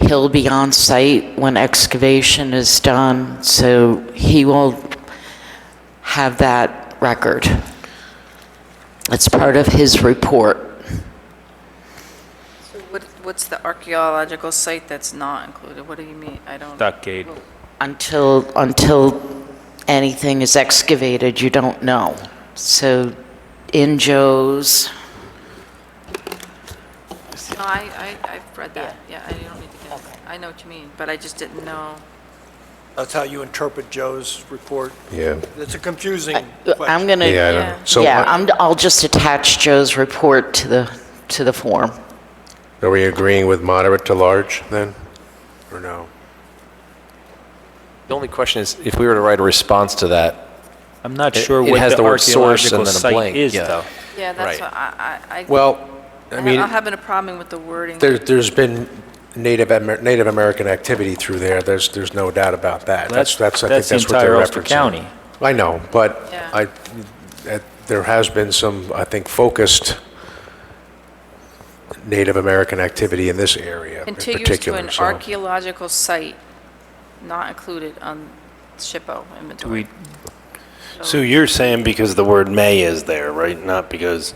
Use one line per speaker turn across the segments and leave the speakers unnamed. He'll be on site when excavation is done, so he will have that record. It's part of his report.
So what- What's the archaeological site that's not included? What do you mean? I don't.
stockade.
Until, until anything is excavated, you don't know. So in Joe's,
No, I, I, I've read that. Yeah, I don't need to get it. I know what you mean, but I just didn't know.
That's how you interpret Joe's report?
Yeah,
It's a confusing
I'm
question.
going to...
yeah, I
Yeah.
know. So
Yeah,
uh,
I'm, I'll just attach Joe's report to the, to the form.
are we agreeing with moderate to large then? Or no?
The only question is, if we were to write a response to that,
I'm not
It-
sure
it
what
has
the
the word source
archaeological
and then a
site
blank,
is,
yeah.
though.
Yeah, that's
Right.
what I, I. I-
Well, I
I'm
mean,
I'm having a problem with the wording.
there, there's been Native, Amer- Native American activity through there, there's, there's no doubt about that. That's, that's, I think
That's the
that's what they're
entire
referencing.
Ulster County.
I know, but
Yeah.
I, that- there has been some, I think, focused Native American activity in this area in
Contiguous to
particular,
an
so.
archaeological site not included on SHPO
Do we,
inventory.
So you're saying because the word may is there, right? Not because,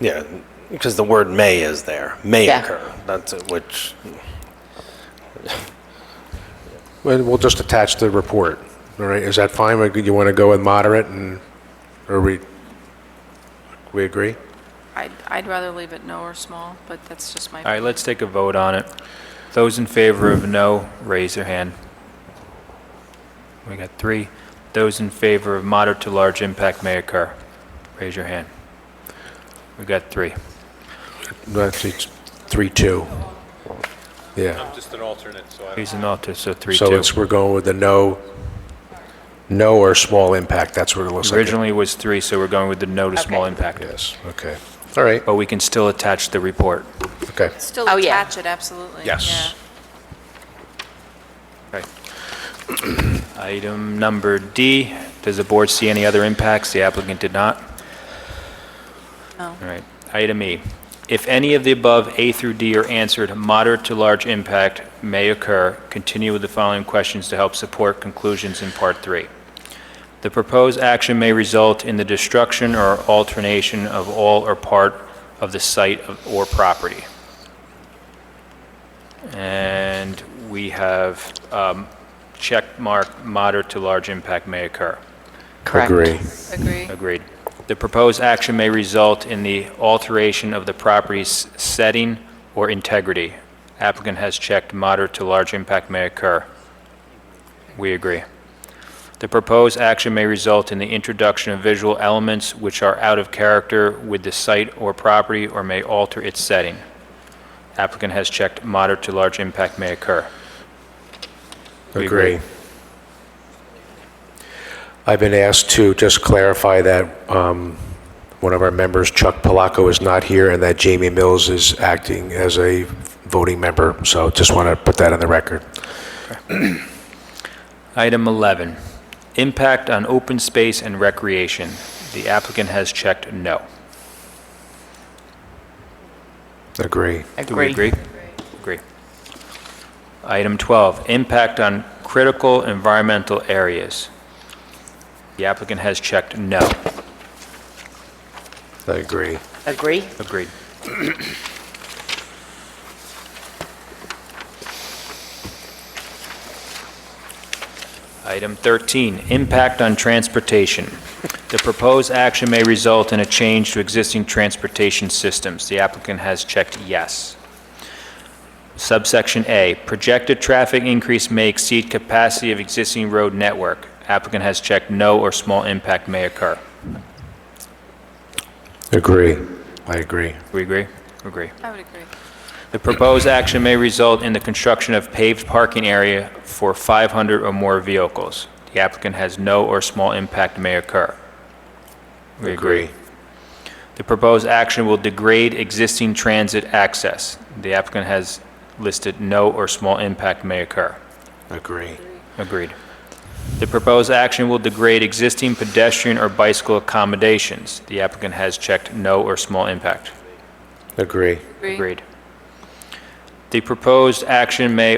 yeah, because the word may is there, may
Yeah.
occur. That's it, which,
Well, We'll just attach the report, all right? Is that fine? Or You want to go with moderate and, or we, we agree?
I'd, I'd rather leave it no or small, but that's just my.
all right, let's take a vote on it. Those in favor of no, raise their hand. We got three. Those in favor of moderate to large impact may occur, raise your hand. We got three.
That's, it's three, two. Yeah.
He's an alter, so three,
So
two.
it's, we're going with the no, no or small impact, that's what it looks like.
Originally was three, so we're going with the no to small impact.
Yes, okay. All right,
But we can still attach the report.
okay.
Still
Oh, yeah.
attach it, absolutely.
Yes.
Yeah.
Okay. Item number D, does the board see any other impacts? The applicant did not.
No.
All right. Item E, if any of the above A through D are answered, moderate to large impact may occur. Continue with the following questions to help support conclusions in Part 3. The proposed action may result in the destruction or alternation of all or part of the site of- or property. And we have um, check mark moderate to large impact may occur.
Correct.
Agree.
Agreed. The proposed action may result in the alteration of the property's setting or integrity. Applicant has checked moderate to large impact may occur. We agree. The proposed action may result in the introduction of visual elements which are out of character with the site or property or may alter its setting. Applicant has checked moderate to large impact may occur. We
Agree. I've been asked to just clarify that um, one of our members, Chuck Polacco, is not here, and that Jamie Mills is acting as a voting member, so just want to put that on the record.
Item 11, impact on open space and recreation. The applicant has checked no.
Agree.
Do we agree? Agree. Item 12, impact on critical environmental areas. The applicant has checked no.
I agree.
Agree?
Agreed. Item 13, impact on transportation. The proposed action may result in a change to existing transportation systems. The applicant has checked yes. Subsection A, projected traffic increase may exceed capacity of existing road network. Applicant has checked no or small impact may occur.
Agree. I agree.
We agree? Agree.
I would agree.
The proposed action may result in the construction of paved parking area for 500 or more vehicles. The applicant has no or small impact may occur. We agree. The proposed action will degrade existing transit access. The applicant has listed no or small impact may occur.
Agree.
Agreed. The proposed action will degrade existing pedestrian or bicycle accommodations. The applicant has checked no or small impact.
Agree.
Agree.
Agreed. The proposed action may